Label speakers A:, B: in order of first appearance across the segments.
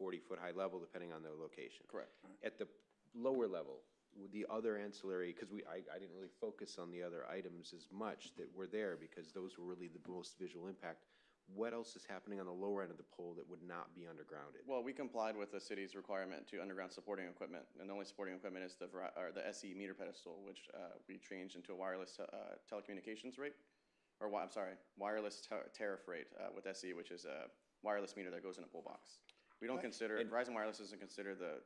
A: 40-foot high level, depending on their location.
B: Correct.
A: At the lower level, with the other ancillary, because we, I, I didn't really focus on the other items as much that were there, because those were really the most visual impact. What else is happening on the lower end of the pole that would not be undergrounded?
B: Well, we complied with the city's requirement to underground supporting equipment, and the only supporting equipment is the, Veri- or the SE meter pedestal, which uh, we changed into a wireless uh, telecommunications rate, or, wi- I'm sorry, wireless tar- tariff rate uh, with SE, which is a wireless meter that goes in a pole box. We don't consider, Verizon Wireless doesn't consider the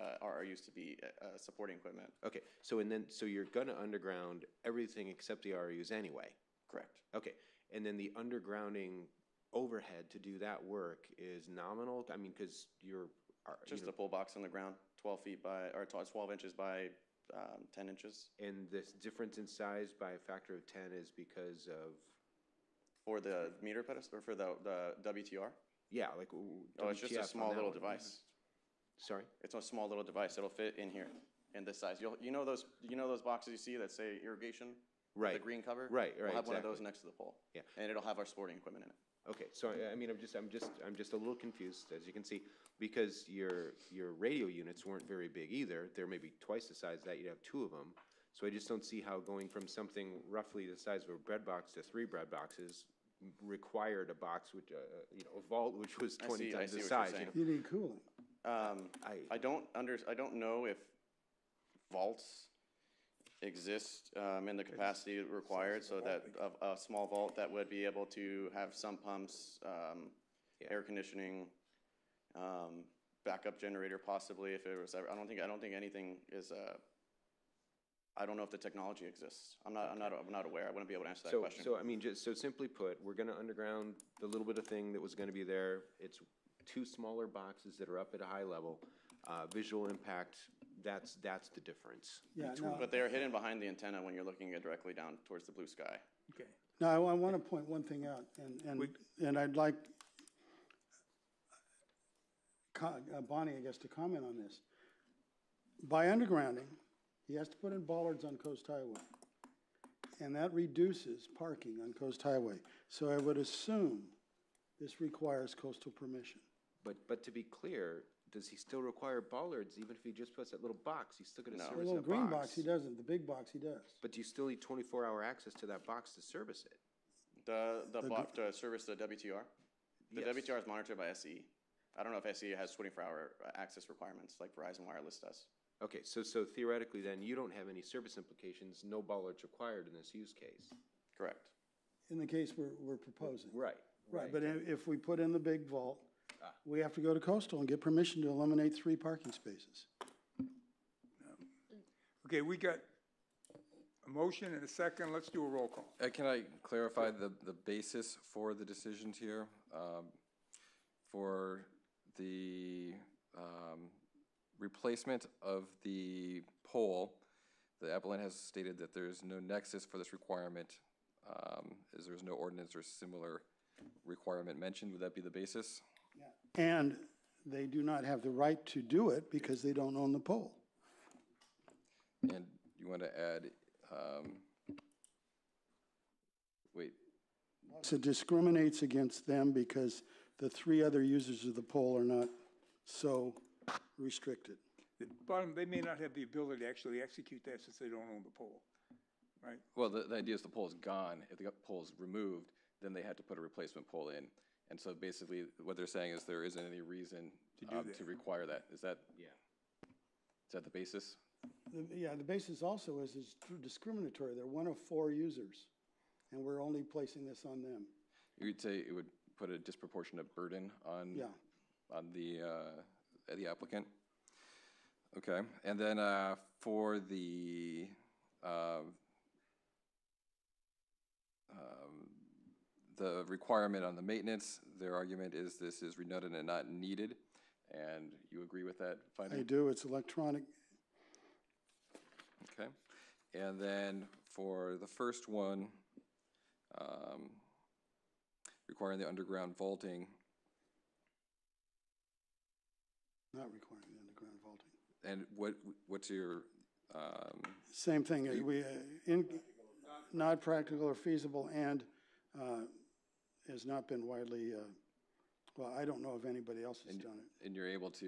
B: uh, RRUs to be uh, uh, supporting equipment.
A: Okay, so and then, so you're gonna underground everything except the RUs anyway?
B: Correct.
A: Okay, and then the undergrounding overhead to do that work is nominal? I mean, because you're, are- you
B: Just a pole box on the ground, 12 feet by, or 12 inches by um, 10 inches
A: know, and this difference in size by a factor of ten is because of,
B: for the meter pedestal, or for the the WTR.
A: yeah, like. w-
B: Oh, it's just
A: WTF
B: a
A: on
B: small
A: that
B: little
A: one.
B: device.
A: Sorry?
B: It's a small little device. It'll fit in here, in this size. You'll, you know those, you know those boxes you see that say irrigation? The
A: Right.
B: green cover?
A: Right,
B: We'll
A: right,
B: have one of those
A: exactly.
B: next to the pole.
A: Yeah.
B: And it'll have our sporting equipment in it.
A: Okay, so I I mean, I'm just, I'm just, I'm just a little confused, as you can see, because your, your radio units weren't very big either. They're maybe twice the size of that, you'd have two of them. So I just don't see how going from something roughly the size of a bread box to three bread boxes required a box which, uh, you know, a vault which was twenty
B: see- I
A: times the
B: see what you're
A: size. you
B: saying.
A: know?
C: You need cooling.
A: I,
B: I don't under, I don't know if vaults exist, um, in the capacity required, so that a, a small vault that would be able to have some pumps, um, air conditioning, um, backup generator possibly, if it was ever, I don't think, I don't think anything is, uh, I don't know if the technology exists. I'm not, I'm not, I'm not aware. I wouldn't be able to answer that
A: so,
B: question.
A: so I mean, just, so simply put, we're gonna underground the little bit of thing that was gonna be there. It's two smaller boxes that are up at a high level. Uh, visual impact, that's, that's the difference.
C: Yeah, no,
B: But they are hidden behind the antenna when you're looking at directly down towards the blue sky.
C: okay. No, I, want to point one thing out, and, and, and I'd like co- uh, Bonnie, I guess, to comment on this. By undergrounding, he has to put in bollards on Coast Highway, and that reduces parking on Coast Highway. So I would assume this requires coastal permission.
A: But, but to be clear, does he still require bollards, even if he just puts that little box, he's still gonna
C: The
A: service
C: little
A: that
C: green box,
A: box?
C: he doesn't, the big box, he does.
A: But do you still need twenty-four hour access to that box to service it?
B: The, the block to service the WTR? The
A: Yes.
B: WTR is monitored by SE. I don't know if SE has twenty-four hour uh, access requirements like Verizon Wireless does.
A: Okay, so, so theoretically then, you don't have any service implications, no bollards required in this use case?
B: Correct.
C: In the case we're, we're proposing.
A: Right.
C: Right, but i- if we put in the big vault, we have to go to coastal and get permission to eliminate three parking spaces.
D: Okay, we got a motion and a second, let's do a roll call.
E: Uh, Can I clarify the, the basis for the decisions here? Um, For the um, replacement of the pole, the appellant has stated that there is no nexus for this requirement, um, as there is no ordinance or similar requirement mentioned. Would that be the basis?
C: And they do not have the right to do it because they don't own the pole.
E: And you want to add, um, wait,
C: So it discriminates against them because the three other users of the pole are not so restricted.
D: The bottom, they may not have the ability to actually execute that since they don't own the pole, right?
E: Well, the, the idea is the pole is gone. If the pole is removed, then they had to put a replacement pole in. And so basically, what they're saying is there isn't any reason um, to require that. Is that, is
A: Yeah.
E: that the basis?
C: The- Yeah, the basis also is it's discriminatory. They're one of four users, and we're only placing this on them.
E: You would say it would put a disproportionate burden on
C: Yeah.
E: on the uh, the applicant. Okay, and then uh, for the uh, um, the requirement on the maintenance, their argument is this is redundant and not needed, and you agree with that finding?
C: They do, it's electronic.
E: Okay, and then for the first one, um, requiring the underground vaulting,
C: Not requiring the underground vaulting.
E: and what, what's your, um,
C: Same thing, uh, we, uh, in, not practical or feasible and, uh, has not been widely, uh, Well, I don't know if anybody else has done it.
E: and you're able to